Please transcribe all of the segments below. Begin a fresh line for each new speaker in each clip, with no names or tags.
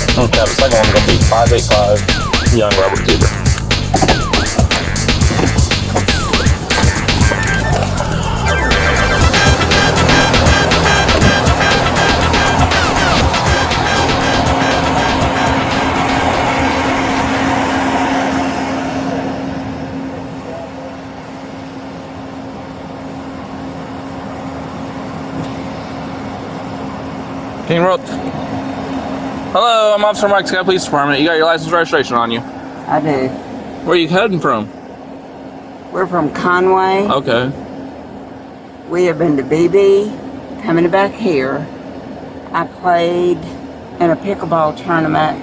second one's gonna be five eight five young Robert Cooper.
King Roth. Hello, I'm Officer Mike Scott Police Department. You got your license registration on you.
I do.
Where are you heading from?
We're from Conway.
Okay.
We have been to BB, coming back here. I played in a pickleball tournament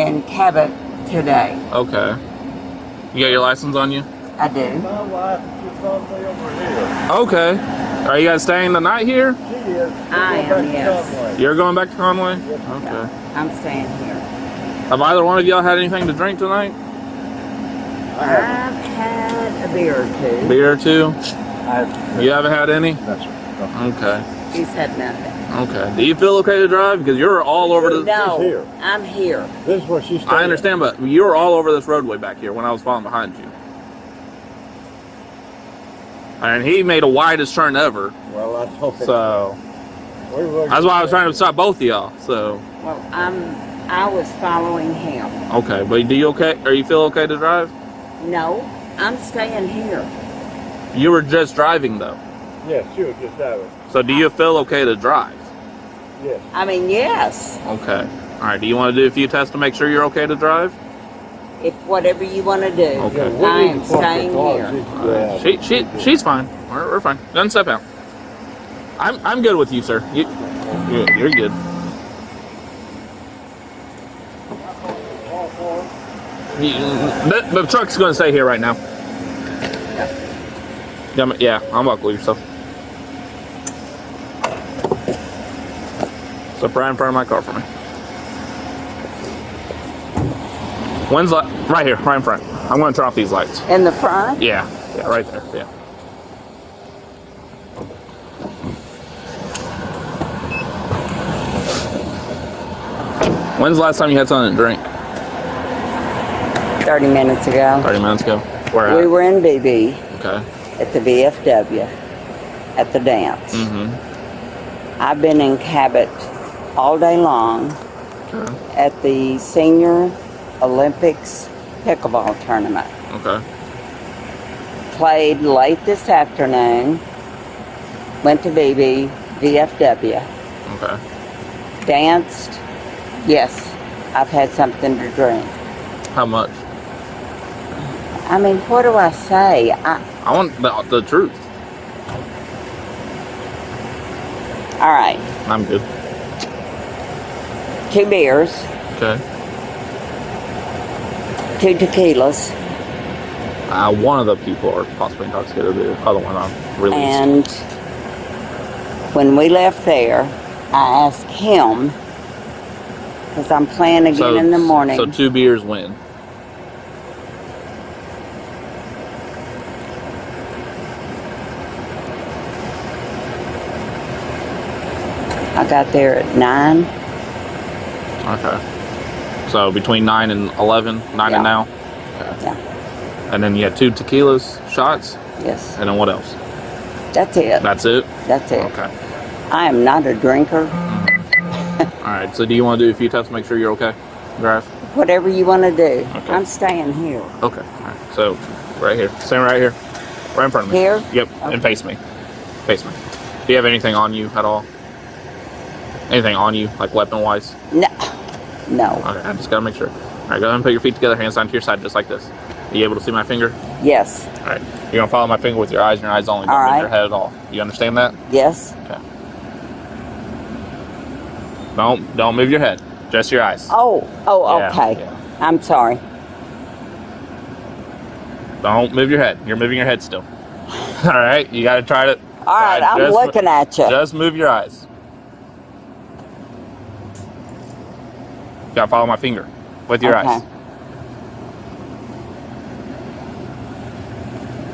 in Cabot today.
Okay. You got your license on you?
I do.
My wife is on the over here.
Okay. Are you guys staying the night here?
She is.
I am, yes.
You're going back to Conway?
Yeah,
Okay.
I'm staying here.
Have either one of y'all had anything to drink tonight?
I've had a beer or two.
Beer or two?
I,
You haven't had any?
That's right.
Okay.
She's had nothing.
Okay. Do you feel okay to drive? Because you're all over the.
No,
here.
I'm here.
This is where she
I understand, but you were all over this roadway back here when I was following behind you. And he made a widest turn ever.
Well, I told her.
So
We were-
that's why I was trying to stop both of y'all. So
Well, I'm, I was following him.
okay, but do you okay? Are you feel okay to drive?
No, I'm staying here.
You were just driving though,
Yes, she was just driving.
so do you feel okay to drive?
Yes.
I mean, yes.
Okay. All right. Do you want to do a few tests to make sure you're okay to drive?
If whatever you want to do.
Okay.
Yeah, we
I
need
am
to park the
staying
car.
here.
She's-
All right.
yeah.
She she she's fine. We're, we're fine. Doesn't step out. I'm I'm good with you, sir. You you- you're good. You- The, the truck's gonna stay here right now. Yeah, I'm- yeah, I'm buckle yourself. Step right in front of my car for me. When's light? Right here, right in front. I'm gonna turn off these lights.
In the front?
Yeah, yeah, right there. Yeah. When's the last time you had something to drink?
30 minutes ago.
30 minutes ago. Where at?
We were in BB
okay.
at the VFW at the dance.
Mm-hmm,
I've been in Cabot all day long
Okay.
at the Senior Olympics pickleball tournament.
Okay.
Played late this afternoon. Went to BB, VFW.
Okay.
Danced. Yes, I've had something to drink.
How much?
I mean, what do I say? I,
I want the, the truth.
all right,
I'm good.
two beers,
Okay.
two tequilas,
Uh, one of the people are possibly intoxicated. The other one I'm released.
and when we left there, I asked him because I'm playing again
so,
in the morning.
So two beers win.
I got there at nine.
Okay. So between 9 and 11, 9
Yeah.
and now.
Yeah,
And then you had two tequilas shots.
yes,
And then what else?
that's it.
That's it?
That's it.
Okay.
I am not a drinker.
All right. So do you want to do a few tests to make sure you're okay? Drive.
Whatever you want to do,
Okay.
I'm staying here.
Okay. All right. So right here. Stand right here. Right in front of me.
Here?
Yep.
Okay.
And face me. Face me. Do you have anything on you at all? Anything on you, like weapon wise?
No, no.
Okay. I just got to make sure. All right. Go ahead and put your feet together, hands down to your side, just like this. Are you able to see my finger?
Yes,
All right. You're going to follow my finger with your eyes and your eyes only. Don't
All
move
right.
your head at all. You understand that?
yes.
Okay. Don't don't move your head. Just your eyes.
Oh, oh,
Yeah,
okay.
yeah.
I'm sorry.
Don't move your head. You're moving your head still. All right, you got to try to.
All right, I'm looking at you.
Just move your eyes. Got to follow my finger with your
Okay.
eyes.